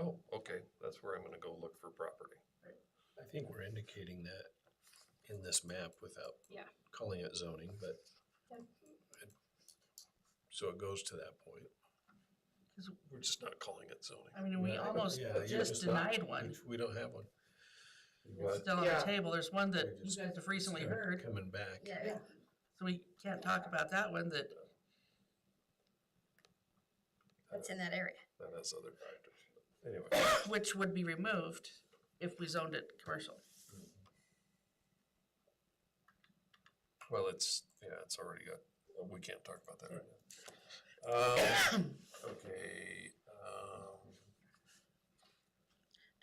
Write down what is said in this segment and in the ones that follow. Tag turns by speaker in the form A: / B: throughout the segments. A: Oh, think we're indicating that in this map without
B: Yeah.
A: calling it zoning, but.
B: Yep.
A: it- So it goes to that point.
C: Because-
A: We're just not calling it zoning.
C: I mean, we
D: Yeah,
C: almost
A: yeah, you
C: just
A: just don't-
C: denied one.
A: We don't have one.
C: It's still on the
D: Yeah.
C: table. There's one that
D: You
B: guys-
C: I've recently heard,
A: Coming back.
B: Yeah,
C: so we can't talk about that one that,
B: that's in that area.
A: That has other factors. Anyway,
C: which would be removed if we zoned it commercial.
A: well, it's, yeah, it's already got, well, we can't talk about that right now. Um, Okay, um,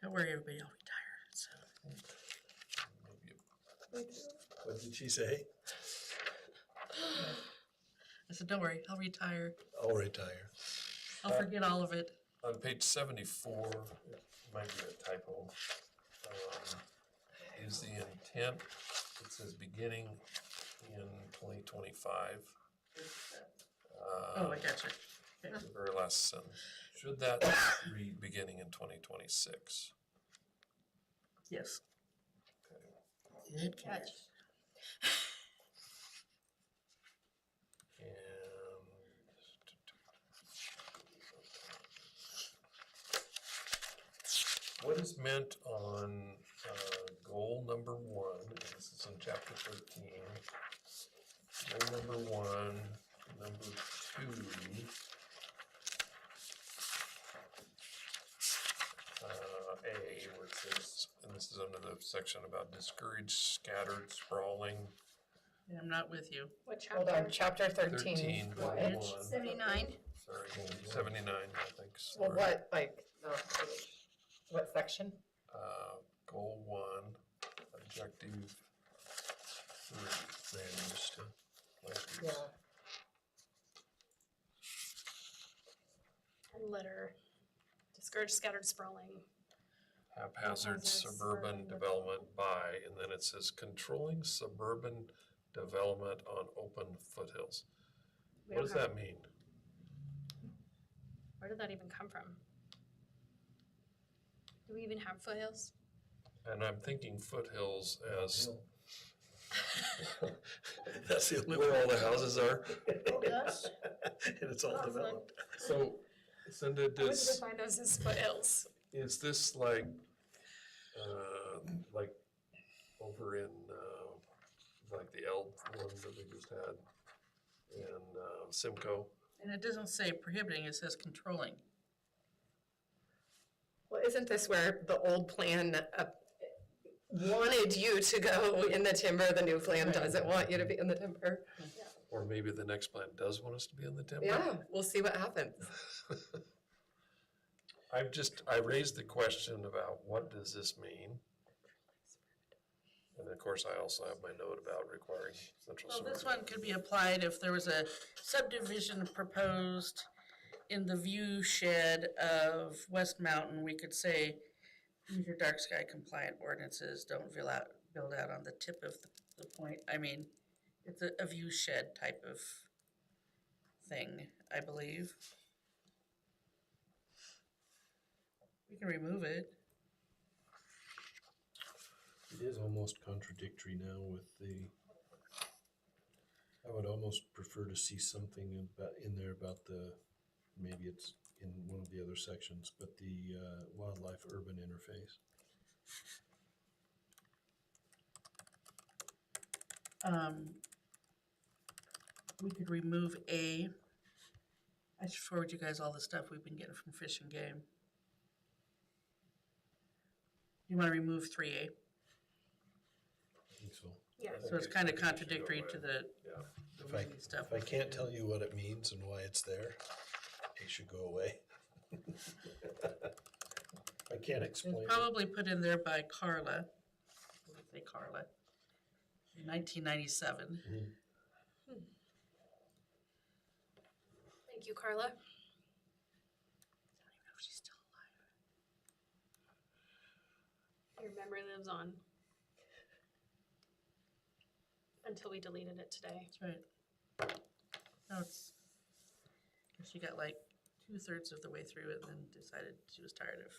C: Don't worry, everybody, I'll retire, so.
A: maybe a- What did she say?
C: I said, don't worry, I'll retire.
A: I'll retire.
C: I'll
A: Uh,
C: forget all of it.
A: On page seventy-four, it might be a typo, um, is the intent, it says beginning in twenty twenty-five. Uh,
C: Oh, I gotcha.
A: The very last sentence, should that read beginning in twenty twenty-six?
C: Yes.
A: Okay.
C: Good catch.
A: And. What is meant on, uh, goal number one, and this is in chapter thirteen. Goal number one, number two. Uh, A, where it says, and this is under the section about discouraged, scattered, sprawling,
C: Yeah, I'm not with you.
B: What
D: Hold on,
B: chapter?
D: chapter thirteen.
A: thirteen,
D: What?
A: number
C: Page
A: one.
B: Seventy-nine.
A: Sorry, seventy-nine, I think.
D: Well,
A: sorry.
D: what, like, no, page. what section?
A: Uh, goal one, objective three. Land use to.
D: Yeah,
B: Letter. Discourage scattered sprawling.
A: Haphazard
B: Haphazard
A: suburban
B: suburban
A: development by, and then it says controlling suburban development on open foothills. What
B: We don't
A: does
B: have-
A: that mean?
B: Where did that even come from? Do we even have foothills?
A: And I'm thinking foothills as.
D: Hill.
A: That's the only. Where all the houses are.
B: Oh, gosh.
A: And it's
B: Awesome.
A: So, Cindy,
B: I would
A: does.
B: define those as foothills.
A: Is this like, uh, like over in, uh, like the L one that we just had? In, uh, Simcoe?
C: And it doesn't say prohibiting, it says controlling.
D: well, isn't this where the old plan up- wanted you to go in the timber, the new plan doesn't want you to be in the timber?
A: Or maybe the next plan does want us to be in the timber?
D: Yeah, we'll see what happens.
A: I've just, I raised the question about what does this mean? And of course, I also have my note about requiring central
C: Well,
A: sewer.
C: this one could be applied if there was a subdivision proposed in the view shed of West Mountain, we could say, use your dark sky compliant ordinances, don't fill out, build out on the tip of the- the point, I mean, it's a, a view shed type of thing, I believe. We can remove it.
A: It is almost contradictory now with the. I would almost prefer to see something about, in there about the, maybe it's in one of the other sections, but the uh, wildlife urban interface.
C: Um, we could remove A. I should forward you guys all the stuff we've been getting from Fish and Game. You wanna remove three A,
A: I think so.
B: Yeah.
C: so it's kinda contradictory to the
A: Yeah.
C: the
A: If I,
C: movie stuff.
A: if I can't tell you what it means and why it's there, it should go away. I can't explain
C: It's
A: it.
C: probably put in there by Carla, What did they Carla, nineteen ninety-seven.
B: Thank you, Carla.
C: Oh,
B: Your memory lives on. Until we deleted it today.
C: That's right. No, it's, she got like two-thirds of the way through it and then decided she was tired of